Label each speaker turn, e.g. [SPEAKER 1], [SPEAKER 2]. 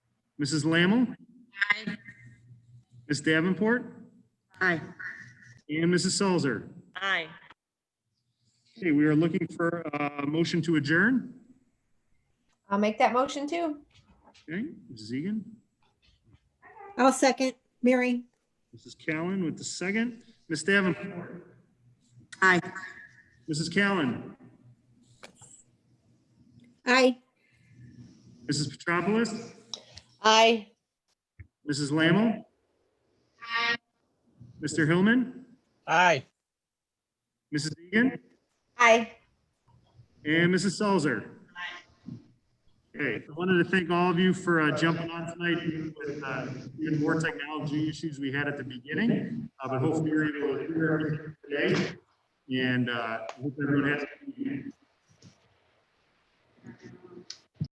[SPEAKER 1] Mrs. Lammle?
[SPEAKER 2] Aye.
[SPEAKER 1] Ms. Davenport?
[SPEAKER 2] Aye.
[SPEAKER 1] And Mrs. Salzer?
[SPEAKER 2] Aye.
[SPEAKER 1] Okay, we are looking for a motion to adjourn.
[SPEAKER 3] I'll make that motion too.
[SPEAKER 1] Okay, Mrs. Egan?
[SPEAKER 4] I'll second. Mary?
[SPEAKER 1] Mrs. Callen with the second. Ms. Davenport?
[SPEAKER 2] Aye.
[SPEAKER 1] Mrs. Callen?
[SPEAKER 4] Aye.
[SPEAKER 1] Mrs. Petropoulos?
[SPEAKER 3] Aye.
[SPEAKER 1] Mrs. Lammle? Mr. Hillman?
[SPEAKER 5] Aye.
[SPEAKER 1] Mrs. Egan?
[SPEAKER 3] Aye.
[SPEAKER 1] And Mrs. Salzer. Okay, I wanted to thank all of you for uh, jumping on tonight, even with, uh, even more technology issues we had at the beginning. uh, But hopefully you're able to hear everything today, and uh, hope everyone has. a good evening.